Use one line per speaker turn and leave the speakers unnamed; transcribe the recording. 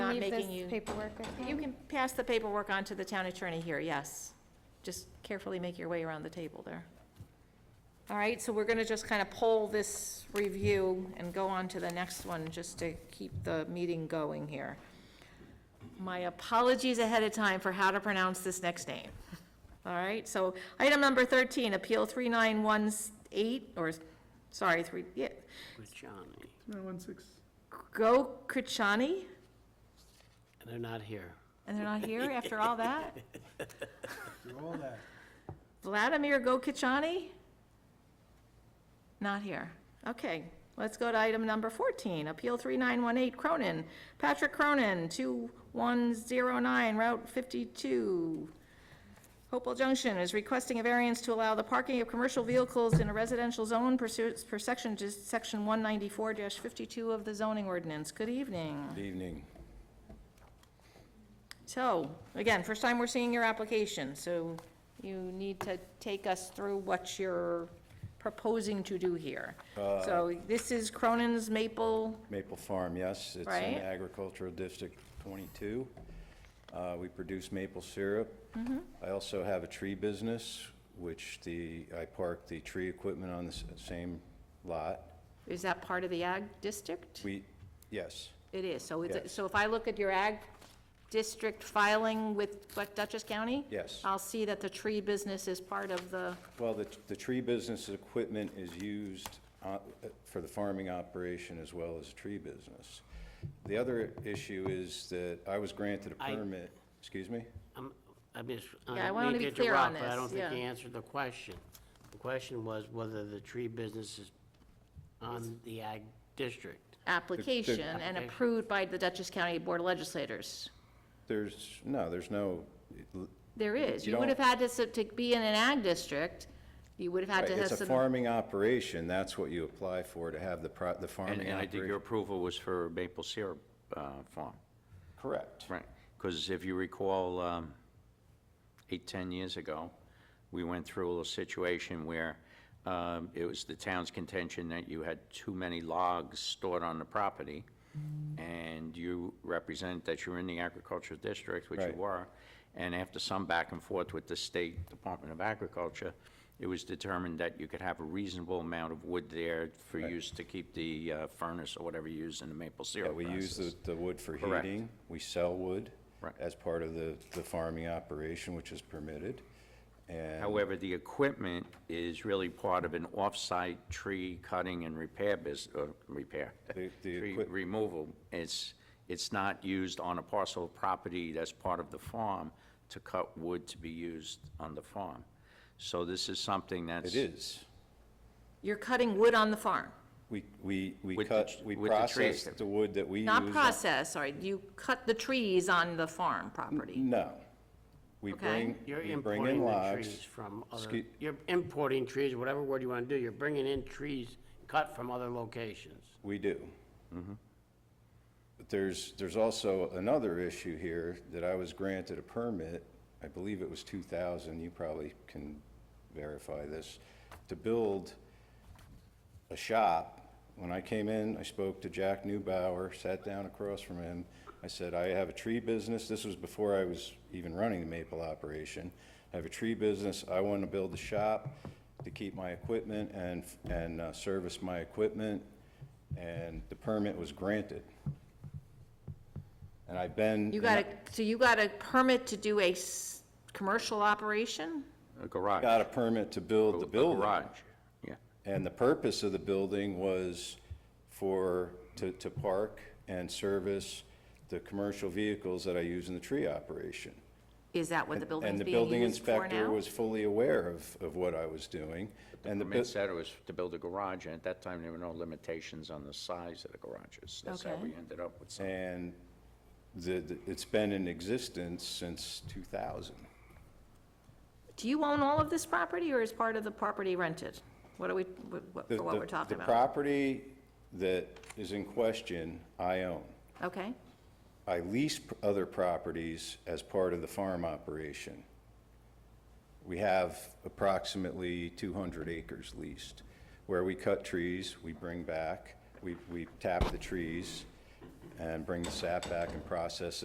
taking
this
you.
paperwork with
You can pass the paperwork on to the town attorney here, yes. Just carefully make your way around the table there. All right, so we're gonna just kind of pull this review and go on to the next one, just to keep the meeting going here. My apologies ahead of time for how to pronounce this next name. All right, so item number thirteen, Appeal three nine one eight, or, sorry, three, yeah,
Rajani,
No, one six.
Gokrachani?
and they're not here.
And they're not here after all that?
Through all that.
Vladimir Gokichani? Not here. Okay, let's go to item number 14, Appeal 3918 Cronin, Patrick Cronin, 2109 Route 52, Hopewell Junction, is requesting a variance to allow the parking of commercial vehicles in a residential zone pursuant per section, just section 194-52 of the zoning ordinance. Good evening.
Good evening.
So, again, first time we're seeing your application, so you need to take us through what you're proposing to do here.
Uh,
So this is Cronin's Maple,
Maple Farm, yes. It's
Right.
in Agricultural District 22. Uh, We produce maple syrup. I also have a tree business, which the, I park the tree equipment on the s- same lot.
is that part of the ag district?
We, yes,
It is, so it's,
Yes.
so if I look at your ag district filing with, what, Dutchess County?
Yes.
I'll see that the tree business is part of the,
well, the, the tree business equipment is used uh, for the farming operation as well as the tree business. The other issue is that I was granted a
I-
permit, excuse me?
I'm, I mean,
Yeah, I
I
wanna
mean to
be clear on
interrupt, but I
this,
don't think
yeah.
you answered the question. The question was whether the tree business is on the ag district.
application and
Application.
approved by the Dutchess County Board of Legislators.
There's, no, there's no,
There is.
You
You would have
don't-
had to, s- to be in an ag district, you would have had
Right,
to have
It's a
some,
farming operation, that's what you apply for, to have the, pro- the farming
And, and I think your
operation.
approval was for maple syrup uh, farm,
Correct.
right? Because if you recall, um, eight, 10 years ago, we went through a little situation where um, it was the town's contention that you had too many logs stored on the property,
Mm.
and you represent that you're in the agricultural district, which you
Right.
were, and after some back and forth with the State Department of Agriculture, it was determined that you could have a reasonable amount of wood there for use to keep the uh, furnace or whatever you use in the maple
Yeah,
syrup
we use the,
process.
the wood for
Correct.
heating, we sell wood
Right.
as part of the, the farming operation, which is permitted. And
However, the equipment is really part of an off-site tree cutting and repair bus, uh, repair,
The- the
tree
equip-
removal. It's, it's not used on a parcel of property that's part of the farm to cut wood to be used on the farm. So this is something that's.
it is,
you're cutting wood on the farm.
we, we, we
With the
cut,
tr-
we
with the
process
trees.
the wood that we use.
Not
on-
process, sorry, you cut the trees on the farm property.
No. We
Okay.
bring,
You're
we bring in
importing the trees
logs.
from other,
Excuse-
you're importing trees, whatever word you want to do, you're bringing in trees cut from other locations.
We do. But there's, there's also another issue here that I was granted a permit, I believe it was 2000, you probably can verify this, to build a shop. When I came in, I spoke to Jack Newbauer, sat down across from him. I said, I have a tree business. This was before I was even running the maple operation. I have a tree business. I want to build a shop to keep my equipment and, and uh, service my equipment. And the permit was granted. And I've been.
You got a, so you got a permit to do a s- commercial operation?
A garage.
Got a permit to build the
a
building.
Garage, yeah.
And the purpose of the building was for, to, to park and service the commercial vehicles that I use in the tree operation.
Is that what the
And
building's
the
being
building
used for
inspector
now?
was fully aware of, of what I was doing. And the,
Permit
bu-
said it was to build a garage, and at that time, there were no limitations on the size of the garages. That's how
Okay.
we ended up with something.
and the, the- it's been in existence since 2000.
Do you own all of this property, or is part of the property rented? What are we, what- what-
The-
for what
the-
we're talking
The
about?
property that is in question, I own.
Okay,
I lease p- other properties as part of the farm operation. We have approximately 200 acres leased, where we cut trees, we bring back, we we tap the trees and bring the sap back and process